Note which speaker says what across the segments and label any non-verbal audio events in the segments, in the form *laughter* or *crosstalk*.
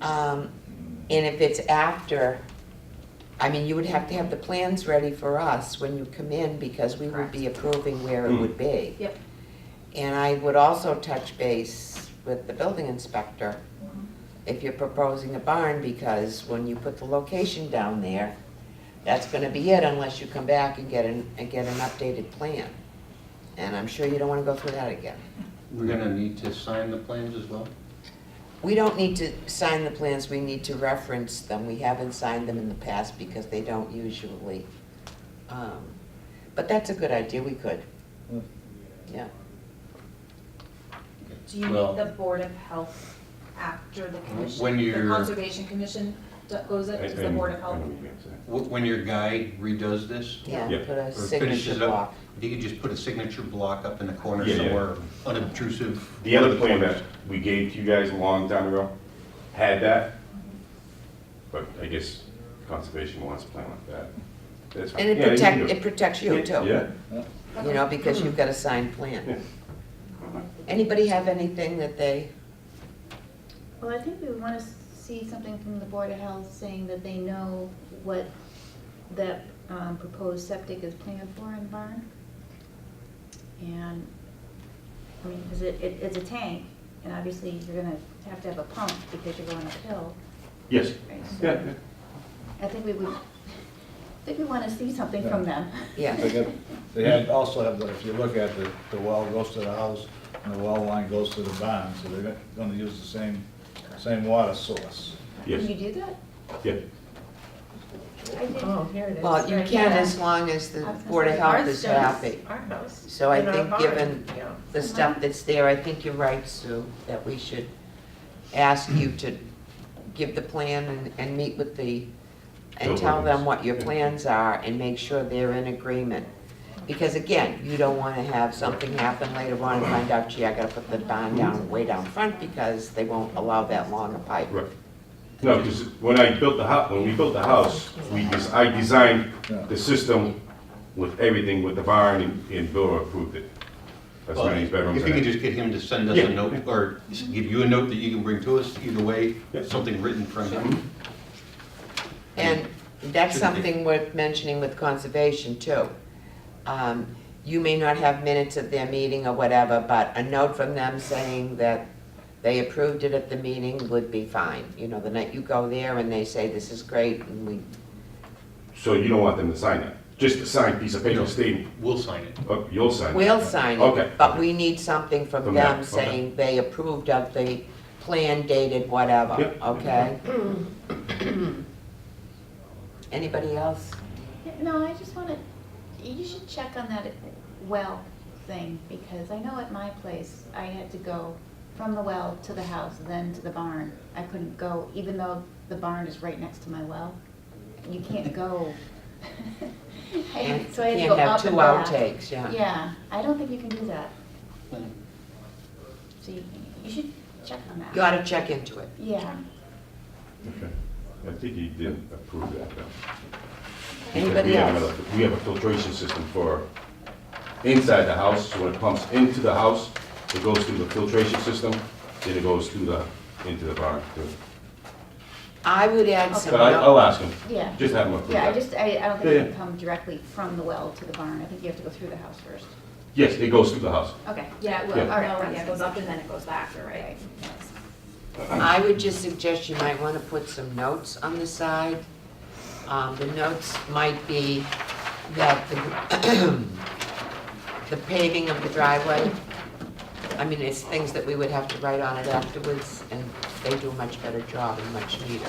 Speaker 1: Um, and if it's after, I mean, you would have to have the plans ready for us when you come in because we would be approving where it would be.
Speaker 2: Yep.
Speaker 1: And I would also touch base with the building inspector if you're proposing a barn because when you put the location down there, that's gonna be it unless you come back and get an, and get an updated plan. And I'm sure you don't wanna go through that again.
Speaker 3: We're gonna need to sign the plans as well?
Speaker 1: We don't need to sign the plans, we need to reference them. We haven't signed them in the past because they don't usually. um, But that's a good idea, we could. Yeah.
Speaker 2: Do you need
Speaker 3: Well-
Speaker 2: the Board of Health after the commission?
Speaker 3: When you're-
Speaker 2: The Conservation Commission d- goes up to the Board of Health?
Speaker 3: Wh- When your guy redoes this?
Speaker 1: Yeah,
Speaker 4: Yeah.
Speaker 1: put a
Speaker 3: or
Speaker 1: signature
Speaker 3: finishes up,
Speaker 1: block.
Speaker 3: If you could just put a signature block up in the corner
Speaker 4: Yeah, yeah.
Speaker 3: somewhere, unobtrusive.
Speaker 4: The other plan that we gave to you guys a long time ago had that, but I guess conservation wants a plan like that. That's fine.
Speaker 1: And it
Speaker 4: Yeah, you can
Speaker 1: protect,
Speaker 4: do
Speaker 1: it protects you too.
Speaker 4: Yeah,
Speaker 1: You know, because you've got a signed
Speaker 4: Yeah.
Speaker 1: plan. Anybody have anything that they,
Speaker 5: Well, I think we want to see something from the Board of Health saying that they know what that um, proposed septic is planned for in the barn. And, I mean, because it, it- it's a tank, and obviously you're going to have to have a pump because you're going uphill.
Speaker 4: yes,
Speaker 5: right? So
Speaker 4: yeah, yeah.
Speaker 5: I think we would, *laughs* I think we want to see something from them.
Speaker 1: yeah,
Speaker 6: They got- They have, also have, the- if you look at the, the well goes to the house, and the well line goes to the barn, so they're gonna use the same, same water source.
Speaker 5: Can you
Speaker 4: yes,
Speaker 5: do that?
Speaker 4: yeah.
Speaker 7: I did-
Speaker 8: Oh, here it is.
Speaker 1: well, you
Speaker 5: Right,
Speaker 1: can
Speaker 5: yeah.
Speaker 1: as long as the
Speaker 5: I was gonna
Speaker 1: Board of
Speaker 5: say,
Speaker 1: Health
Speaker 7: Ours
Speaker 1: is
Speaker 7: does,
Speaker 1: happy.
Speaker 7: Our house.
Speaker 1: So I
Speaker 7: and our
Speaker 1: think
Speaker 7: barn,
Speaker 1: given-
Speaker 7: yeah.
Speaker 1: The stuff that's there, I think you're right, Sue, that we should ask you to give the plan and, and meet with the, and
Speaker 4: Building
Speaker 1: tell them
Speaker 4: is-
Speaker 1: what your
Speaker 4: yeah.
Speaker 1: plans are and make sure they're in agreement. Because again, you don't wanna have something happen later on and find out, gee, I gotta put the barn down way down front because they won't allow that long a pipe.
Speaker 4: Right. No, because when I built the house, when we built the house, we, des- I designed the system with everything, with the barn, and- and Bill approved it. That's
Speaker 3: Well,
Speaker 4: many bedrooms.
Speaker 3: If
Speaker 4: in
Speaker 3: you
Speaker 4: it.
Speaker 3: could just get him to send us
Speaker 4: Yeah.
Speaker 3: a note, or s- give you a note that you can bring to us, either way,
Speaker 4: Yeah.
Speaker 3: something written from him.
Speaker 1: And that's
Speaker 3: Shouldn't be.
Speaker 1: something worth mentioning with conservation too. Um, You may not have minutes of their meeting or whatever, but a note from them saying that they approved it at the meeting would be fine. You know, the night you go there and they say, this is great, and we,
Speaker 4: So you don't want them to sign that? Just a signed piece of
Speaker 3: No.
Speaker 4: paper stating,
Speaker 3: We'll sign it.
Speaker 4: oh, you'll sign it?
Speaker 1: we'll sign
Speaker 4: Okay.
Speaker 1: it, but we need something from
Speaker 4: From them,
Speaker 1: them
Speaker 4: okay.
Speaker 1: saying they approved of the plan dated whatever,
Speaker 4: Yep.
Speaker 1: okay? Anybody else?
Speaker 5: No, I just want to, you should check on that well thing, because I know at my place, I had to go from the well to the house, then to the barn. I couldn't go, even though the barn is right next to my well. You can't go. *laughs* I had- So I had to go
Speaker 1: Can't have
Speaker 5: up
Speaker 1: two
Speaker 5: and back.
Speaker 1: outtakes, yeah.
Speaker 5: Yeah, I don't think you can do that. So you, you should check on that.
Speaker 1: You ought to check into it.
Speaker 5: Yeah.
Speaker 4: Okay. I think he did approve that, though. Because
Speaker 1: Anybody
Speaker 4: we have
Speaker 1: else?
Speaker 4: a- We have a filtration system for inside the house, so when it pumps into the house, it goes through the filtration system, then it goes through the, into the barn. too.
Speaker 1: I would add some.
Speaker 4: But I, oh, I'll ask him,
Speaker 5: Yeah.
Speaker 4: just have him approve
Speaker 5: Yeah, I
Speaker 4: that.
Speaker 5: just, I, I don't
Speaker 4: Yeah,
Speaker 5: think you
Speaker 4: yeah.
Speaker 5: can come directly from the well to the barn. I think you have to go through the house first.
Speaker 4: Yes, it goes through the house.
Speaker 5: Okay.
Speaker 2: Yeah, it will,
Speaker 4: Yeah.
Speaker 2: no, yeah, it goes up and then it goes back, you're right.
Speaker 1: I would just suggest you might want to put some notes on the side. Um, The notes might be that the *clears throat* the paving of the driveway, I mean, it's things that we would have to write on it afterwards, and they do a much better job and much neater.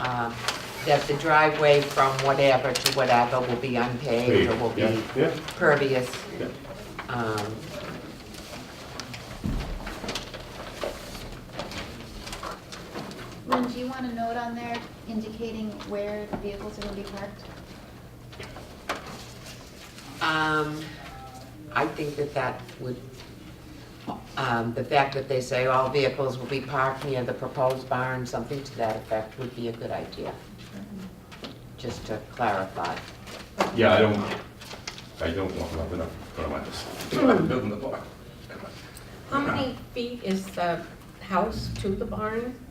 Speaker 1: Um, That the driveway from whatever to whatever will be unpaved or will
Speaker 4: Yeah,
Speaker 1: be
Speaker 4: yeah.
Speaker 1: pervious.
Speaker 4: Yeah.
Speaker 1: Um,
Speaker 5: Lynn, do you want a note on there indicating where the vehicles are gonna be parked?
Speaker 1: Um, I think that that would, um, the fact that they say all vehicles will be parked near the proposed barn, something to that effect would be a good idea. Just to clarify.
Speaker 4: Yeah, I don't, I don't want nothing up in front of my house.
Speaker 5: Hmm.
Speaker 4: *laughs* I'm building the barn.
Speaker 7: How many feet is the house to the barn?